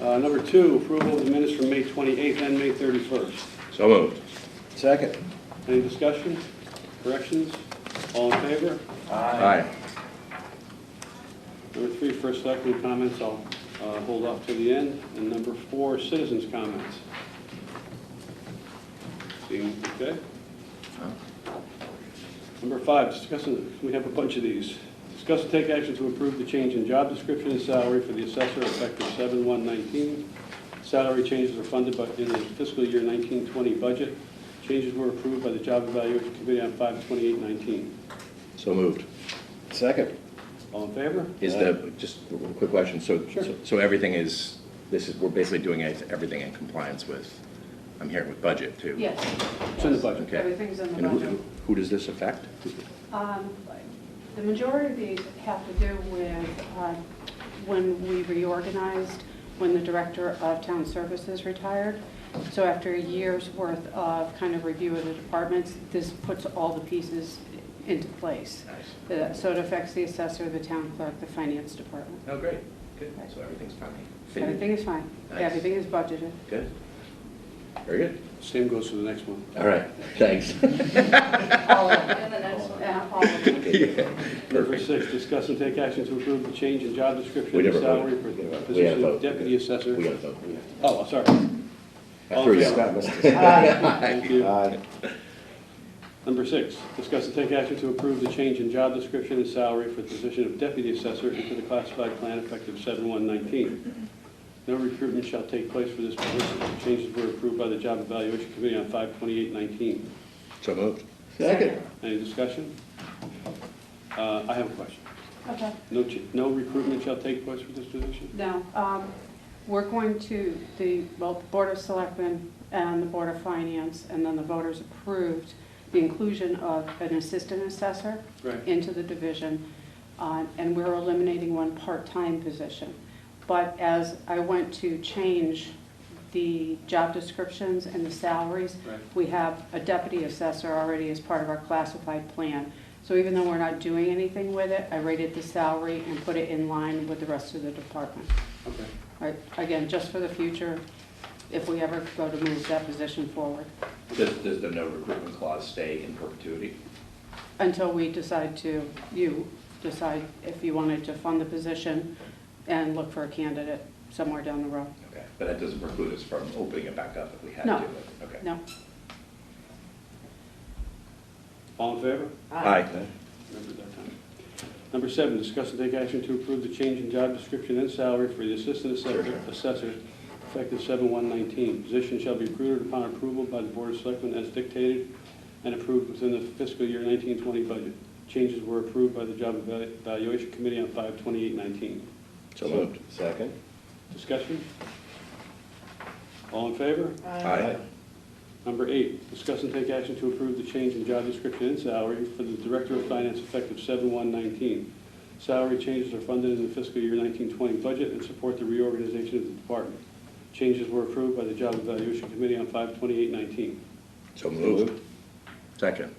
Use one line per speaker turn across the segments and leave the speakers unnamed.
Uh, Number two, approval of the minutes from May 28th and May 31st.
So moved.
Second.
Any discussion, corrections? All in favor?
Aye.
Number three, first selectmen comments, I'll uh, hold off to the end. And number four, citizens' comments. Seeing, okay? Number five, discussing, we have a bunch of these. Discuss and take action to approve the change in job description and salary for the assessor effective seven one nineteen. Salary changes are funded by, in the fiscal year nineteen twenty budget. Changes were approved by the Job Evaluation Committee on five twenty-eight nineteen.
So moved.
Second.
All in favor?
Is the, just a real quick question, so,
Sure.
so- so everything is, this is, we're basically doing it- everything in compliance with, I'm hearing with budget too?
Yes.
It's in the budget.
Okay.
Everything's in the
And who-
budget.
Who does this affect?
Um, The majority of these have to do with uh, when we reorganized, when the director of town services retired. So after a year's worth of kind of review of the departments, this puts all the pieces into place. Uh, So it affects the assessor, the town clerk, the finance department.
Oh, great, good, so everything's fine. Fitted?
Everything is fine.
Nice.
Everything is budgeted.
Good. Very good.
Same goes for the next one.
All right, thanks.
All of it. Yeah, Uh, all of it.
Yeah,
Number
Perfect.
six, discuss and take action to approve the change in job description
We
and
never
salary
voted.
for
We
the
gotta vote. We gotta
position of
vote.
deputy assessor.
We gotta vote. We gotta-
Oh, I'm sorry.
I threw you out.
Scott missed it.
Thank you.
Aye.
Number six, discuss and take action to approve the change in job description and salary for the position of deputy assessor into the classified plan effective seven one nineteen. No recruitment shall take place for this position. The Changes were approved by the job evaluation committee on five twenty-eight nineteen.
So moved.
Second.
Any discussion? Uh, I have a question.
Okay.
No, ch- no recruitment shall take place for this position?
No, um, we're going to, the, well, the Board of Selectmen and the Board of Finance, and then the voters approved the inclusion of an assistant assessor
Right.
into the division, uh, and we're eliminating one part-time position. But as I went to change the job descriptions and the salaries,
Right.
we have a deputy assessor already as part of our classified plan. So even though we're not doing anything with it, I rated the salary and put it in line with the rest of the department.
Okay.
Right, Again, just for the future, if we ever go to move that position forward,
Does, does the no recruitment clause stay in perpetuity?
until we decide to, you decide if you wanted to fund the position and look for a candidate somewhere down the road.
Okay, but that doesn't preclude us from opening it back up if we had to?
No.
Okay.
No?
All in favor?
Aye.
Remember that time. Number seven, discuss and take action to approve the change in job description and salary for the assistant assessor, assessor, effective seven one nineteen. Position shall be recruited upon approval by the Board of Selectmen as dictated and approved within the fiscal year nineteen twenty budget. Changes were approved by the Job Evalu- Evaluation Committee on five twenty-eight nineteen.
So moved.
Second.
Discussion? All in favor?
Aye.
Number eight, discuss and take action to approve the change in job description and salary for the Director of Finance effective seven one nineteen. Salary changes are funded in the fiscal year nineteen twenty budget and support the reorganization of the department. Changes were approved by the Job Evaluation Committee on five twenty-eight nineteen.
So moved. Second.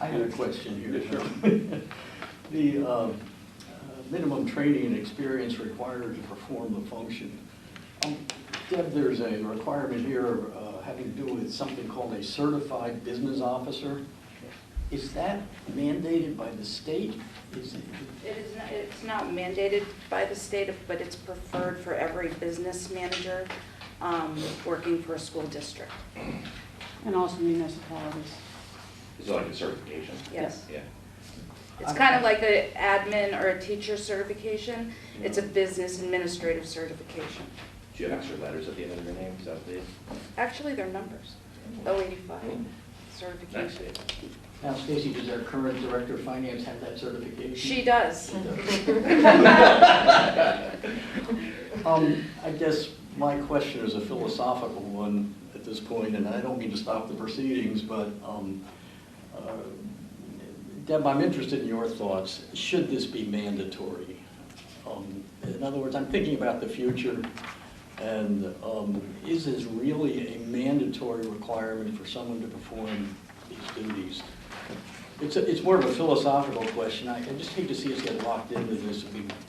I have a question here.
Yeah,
The um, uh, minimum training and experience required to perform the function. Um, Deb, there's a requirement here uh, having to do with something called a certified business officer. Is that mandated by the state? Is it-
It is, not- it's not mandated by the state, but it's preferred for every business manager um, working for a school district.
And also municipalities.
Is it like a certification?
Yes.
Yeah.
It's kind of like a admin or a teacher certification. It's a business administrative certification.
Do you have extra letters at the end of your name? Is that what it is?
Actually, they're numbers. 085 certification.
Now, Stacy, does our current director of finance have that certification?
She does.
Um, I guess my question is a philosophical one at this point, and I don't mean to stop the proceedings, but, um, uh, Deb, I'm interested in your thoughts. Should this be mandatory? Um, In other words, I'm thinking about the future, and, um, is this really a mandatory requirement for someone to perform these duties? It's, a- it's more of a philosophical question. I, I just hate to see us get locked into this. We